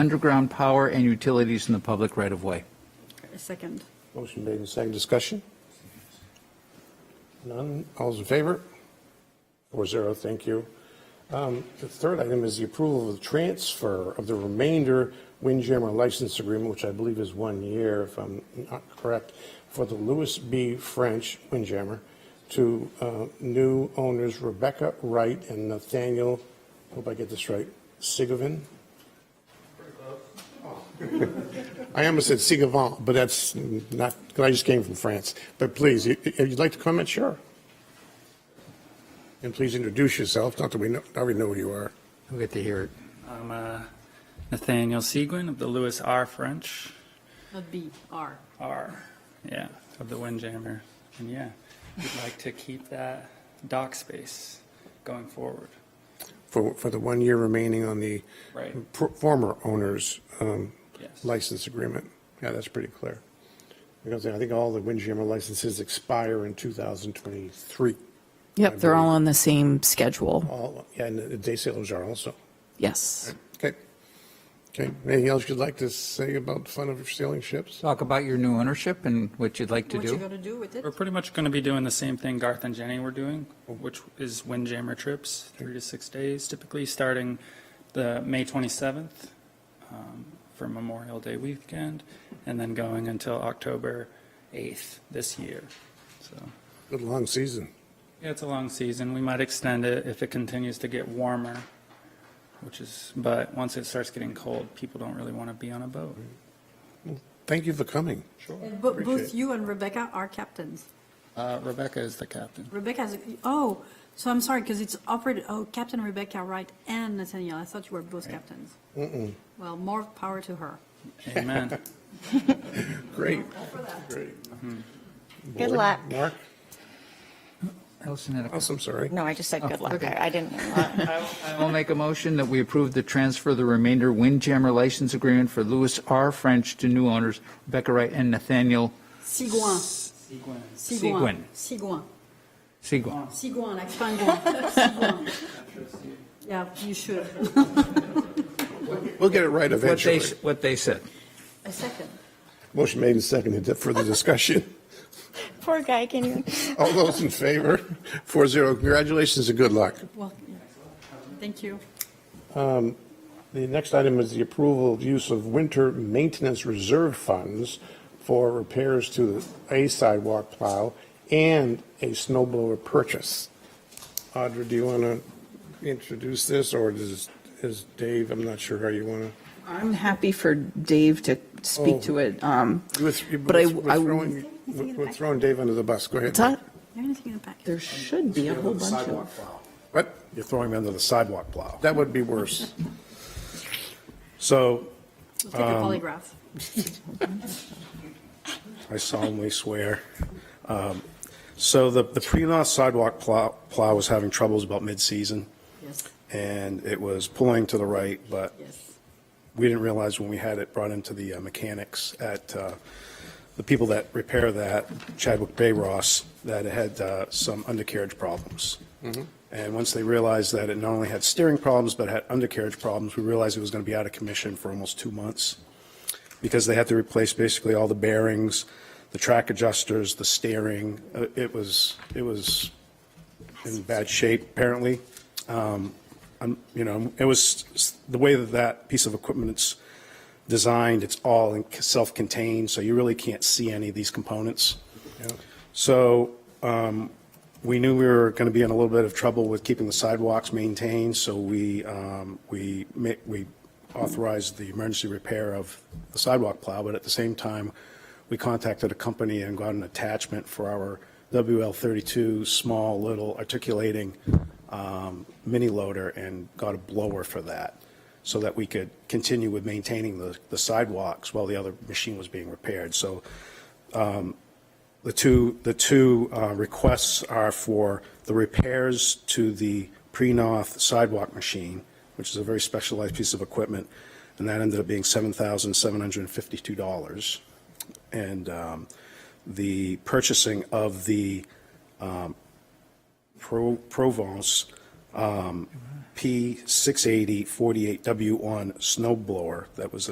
underground power and utilities in the public right-of-way. Second. Motion made in second discussion. None, all's in favor? Four zero, thank you. Um, The third item is the approval of the transfer of the remainder Windjammer license agreement, which I believe is one year, if I'm not correct, for the Louis B. French Windjammer to uh, new owners Rebecca Wright and Nathaniel, hope I get this right, Sigovin? I almost said Sigavant, but that's not, 'cause I just came from France. But please, i- if you'd like to comment, sure. And please introduce yourself, not that we know, I already know who you are. We'll get to hear it. I'm uh, Nathaniel Seguin of the Lewis R. French Not B, R. R. Yeah, of the Windjammer. And yeah, we'd like to keep that dock space going forward. For, for the one year remaining on the Right. pr- former owner's um, Yes. license agreement. Yeah, that's pretty clear. Because I think all the Windjammer licenses expire in 2023. Yep, they're all on the same schedule. All, yeah, and the day sailors are also. Yes. Okay. Okay, anything else you'd like to say about the fun of sailing ships? Talk about your new ownership and what you'd like to What you do. gonna do with it? We're pretty much going to be doing the same thing Garth and Jenny were doing, which is Windjammer trips, three to six days, typically starting the May 27th um, for Memorial Day weekend, and then going until October 8th this year. So. Good long season. Yeah, it's a long season. We might extend it if it continues to get warmer, which is, but once it starts getting cold, people don't really want to be on a boat. Thank you for coming. Sure. But both you and Rebecca are captains. Uh, Rebecca is the captain. Rebecca's, oh, so I'm sorry, because it's operated, oh, Captain Rebecca Wright and Nathaniel. I thought you were both captains. Well, more power to her. Amen. Great. Great. Good Board? luck. Mark? Allison had a- Else, I'm sorry. No, I just said good luck. okay. I I didn't. uh, I will make a motion that we approve the transfer of the remainder Windjammer license agreement for Louis R. French to new owners Rebecca Wright and Nathaniel Sigouin. Sigouin. Sigouin. Sigouin. Segua. Sigouin, like penguin. Sigouin. Yeah, you should. We'll get it right What they, eventually. what they said. A second. Motion made and seconded. Further discussion? Poor guy, can you? All those in favor? Four zero. Congratulations and good luck. Um, Well, yeah. thank you. The next item is the approval of use of winter maintenance reserve funds for repairs to the a sidewalk plow and a snow blower purchase. Audra, do you want to introduce this or does, is Dave, I'm not sure how you want to. I'm happy for Dave to Oh. speak to it. um, You was- you- But I- we're I- throwing- We're we're throwing Dave under the bus, go ahead. What's that? You're gonna take it back. There should be a whole bunch of. What? You're throwing him under the sidewalk plow. That would be worse. So We'll take a Um, polygraph. I solemnly swear. Um, So the, the pre-law sidewalk plow, plow was having troubles about mid-season, Yes, and it was pulling to the right, but yes. we didn't realize when we had it brought into the uh, mechanics at, uh, the people that repair that, Chadwick Bay Ross, that it had uh, some undercarriage problems. And once they realized that it not only had steering problems, but had undercarriage problems, we realized it was going to be out of commission for almost two months because they had to replace basically all the bearings, the track adjusters, the steering. Uh, It was, it was in bad shape, apparently. Um, I'm- You know, it was, s- the way that that piece of equipment's designed, it's all in- self-contained, so you really can't see any of these components. So um, we knew we were going to be in a little bit of trouble with keeping the sidewalks maintained, so we, um, we ma- we authorized the emergency repair of the sidewalk plow, but at the same time, we contacted a company and got an attachment for our WL32 small little articulating um, mini loader and got a blower for that so that we could continue with maintaining the the sidewalks while the other machine was being repaired. So the two, the two uh, requests are for the repairs to the pre-north sidewalk machine, which is a very specialized piece of equipment, and that ended up being $7,752. And um, the purchasing of the um, Pro- Provence um, P 68048W on snow blower that was